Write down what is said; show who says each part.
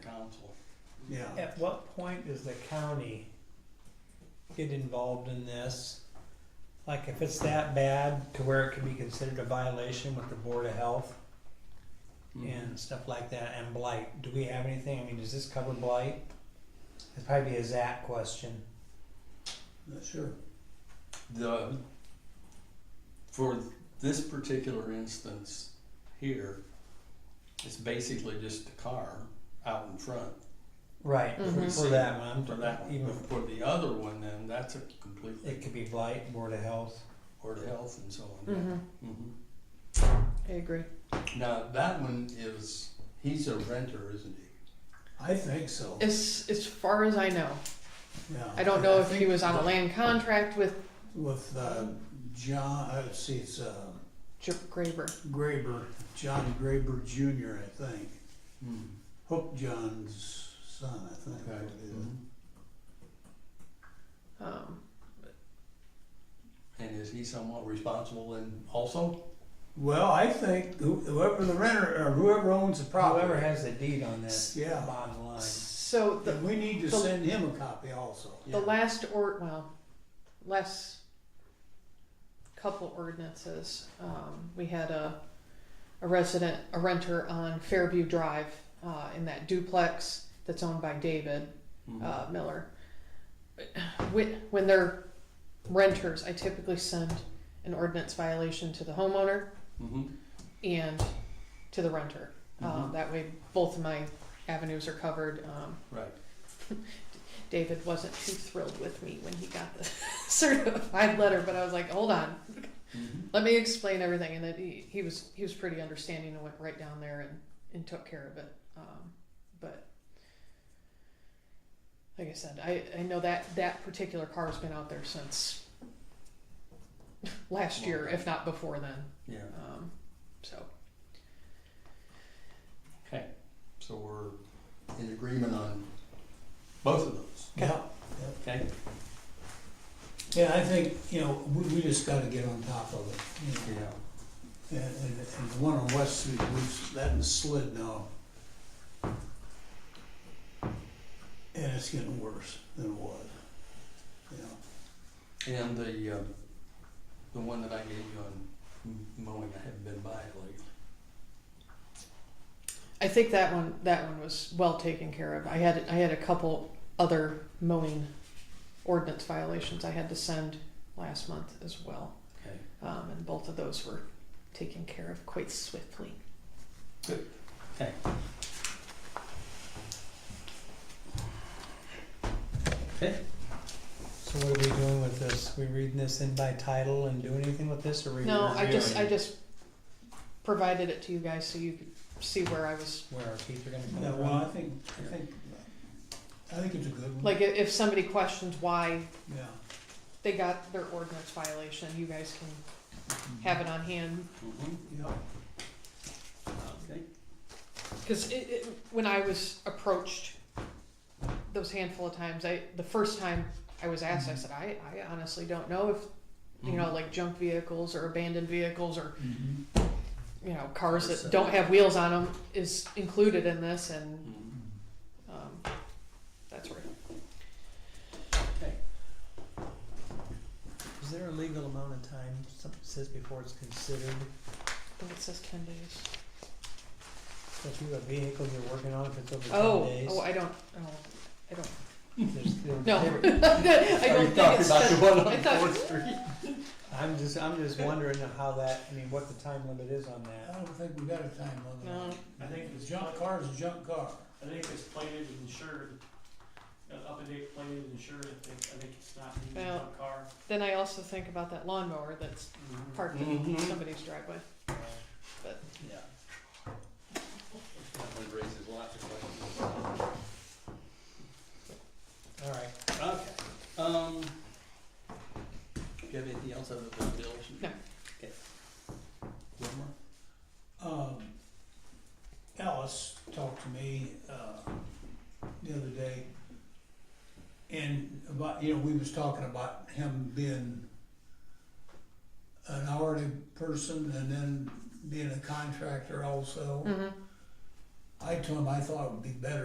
Speaker 1: council.
Speaker 2: Yeah.
Speaker 3: At what point does the county get involved in this? Like if it's that bad to where it could be considered a violation with the Board of Health
Speaker 1: Mm-hmm.
Speaker 3: and stuff like that and blight, do we have anything? I mean, does this cover blight? It'd probably be a Zach question.
Speaker 2: Not sure.
Speaker 1: The, for this particular instance here, it's basically just a car out in front.
Speaker 3: Right,
Speaker 4: Mhm.
Speaker 3: for that one, I'm
Speaker 1: For that
Speaker 3: even,
Speaker 1: one, for the other one, then that's a completely,
Speaker 3: it could be blight, Board of Health.
Speaker 1: Board of Health and so on.
Speaker 4: Mm-hmm.
Speaker 1: Mhm.
Speaker 4: I agree.
Speaker 1: Now, that one is, he's a renter, isn't he?
Speaker 2: I think so.
Speaker 4: As as far as I know,
Speaker 2: Yeah.
Speaker 4: I don't know if
Speaker 2: think
Speaker 4: he was on a
Speaker 2: the-
Speaker 4: land contract with
Speaker 2: With uh, John, uh, let's see, it's uh,
Speaker 4: J- Graber.
Speaker 2: Graber, John Graber Jr., I think.
Speaker 1: Hmm.
Speaker 2: Hook John's son, I think.
Speaker 1: Okay.
Speaker 2: it is.
Speaker 1: Mhm.
Speaker 4: Um,
Speaker 1: And is he somewhat responsible and also?
Speaker 2: Well, I think who- whoever the renter or whoever owns the property.
Speaker 3: Whoever has the deed on that,
Speaker 2: Yeah.
Speaker 3: bottom line.
Speaker 4: so the
Speaker 2: then we need to
Speaker 4: The-
Speaker 2: send him a copy also.
Speaker 1: Yeah.
Speaker 4: the last or well, last couple ordinances, um, we had a a resident, a renter on Fairview Drive uh, in that duplex that's owned by David.
Speaker 1: Mhm.
Speaker 4: uh, Miller. When, when they're renters, I typically send an ordinance violation to the homeowner
Speaker 1: Mhm.
Speaker 4: and to the renter. Um,
Speaker 1: Mhm.
Speaker 4: that way, both of my avenues are covered. Um,
Speaker 1: Right.
Speaker 4: David wasn't too thrilled with me when he got the certified letter, but I was like, hold on,
Speaker 1: Mhm.
Speaker 4: let me explain everything. And then he, he was he was pretty understanding and went right down there and, and took care of it. Um, but like I said, I, I know that that particular car has been out there since last year, if not before then.
Speaker 1: Yeah.
Speaker 4: Um, so
Speaker 1: Okay, so we're in agreement on both of those,
Speaker 2: Yeah.
Speaker 1: okay?
Speaker 2: Yeah, I think, you know, we, we just gotta get on top of it, you know.
Speaker 1: Yeah.
Speaker 2: And, and, and the one on West Street, we've, that one's slid now. And it's getting worse than it was, you know.
Speaker 1: And the, um, the one that I gave you on m- mowing, I haven't been by it lately.
Speaker 4: I think that one that one was well taken care of. I had I had a couple other mowing ordinance violations I had to send last month as well.
Speaker 1: Okay.
Speaker 4: Um, and both of those were taken care of quite swiftly.
Speaker 1: Okay. Okay,
Speaker 3: So what are we doing with this? We reading this in by title and doing anything with this, or we
Speaker 4: No, I just, I
Speaker 3: reviewing
Speaker 4: just provided it to you guys so you could see where I was.
Speaker 3: where our teeth are gonna come
Speaker 2: Yeah,
Speaker 3: from?
Speaker 2: well, I think, I think, I think it's a good one.
Speaker 4: Like, i- if somebody questions why
Speaker 2: Yeah.
Speaker 4: they got their ordinance violation, you guys can have it on hand.
Speaker 1: mhm,
Speaker 2: Yeah,
Speaker 1: okay,
Speaker 4: Because it, it, when I was approached those handful of times, I the first time I was asked,
Speaker 1: Mm-hmm.
Speaker 4: I said, I, I honestly don't know if you know, like junk vehicles or abandoned vehicles or
Speaker 2: Mhm.
Speaker 4: you know
Speaker 1: Mm-hmm.
Speaker 4: cars
Speaker 1: Cars
Speaker 4: that
Speaker 1: that-
Speaker 4: don't have wheels on them is included in this and
Speaker 1: mhm.
Speaker 4: Um, that's right.
Speaker 3: Is there a legal amount of time, something says before it's considered,
Speaker 4: I think it says ten days.
Speaker 3: if you have a vehicle you're working on, if it's over ten
Speaker 4: Oh,
Speaker 3: days?
Speaker 4: oh, I don't, oh, I don't.
Speaker 3: there's- there-
Speaker 4: No.
Speaker 3: there-
Speaker 4: I
Speaker 1: Are
Speaker 4: don't
Speaker 1: you
Speaker 4: think it's
Speaker 1: talking about the one
Speaker 4: ten. I
Speaker 1: on
Speaker 4: thought-
Speaker 1: Fourth Street?
Speaker 3: I'm just, I'm just wondering how that, I mean, what the time limit is on
Speaker 2: I
Speaker 3: that.
Speaker 2: don't think we got a time limit. on it.
Speaker 5: No. I think it's-
Speaker 2: Junk car's a junk car.
Speaker 5: I think it's plated and insured, uh, up to date plated and insured, I think, I think it's not needed
Speaker 4: Yeah.
Speaker 5: on a car. Mm-hmm.
Speaker 4: Then I also think about that lawnmower that's parked in
Speaker 1: Mhm.
Speaker 4: somebody's driveway.
Speaker 1: Yeah. That one raises lots of questions.
Speaker 3: Alright,
Speaker 1: Okay, um, do you have anything else other than bills?
Speaker 4: No.
Speaker 1: Okay. One more?
Speaker 2: Um, Alice talked to me, uh, the other day, and about, you know, we was talking about him being an hourly person and then being a contractor also.
Speaker 4: Mm-hmm.
Speaker 2: I told him I thought it would be better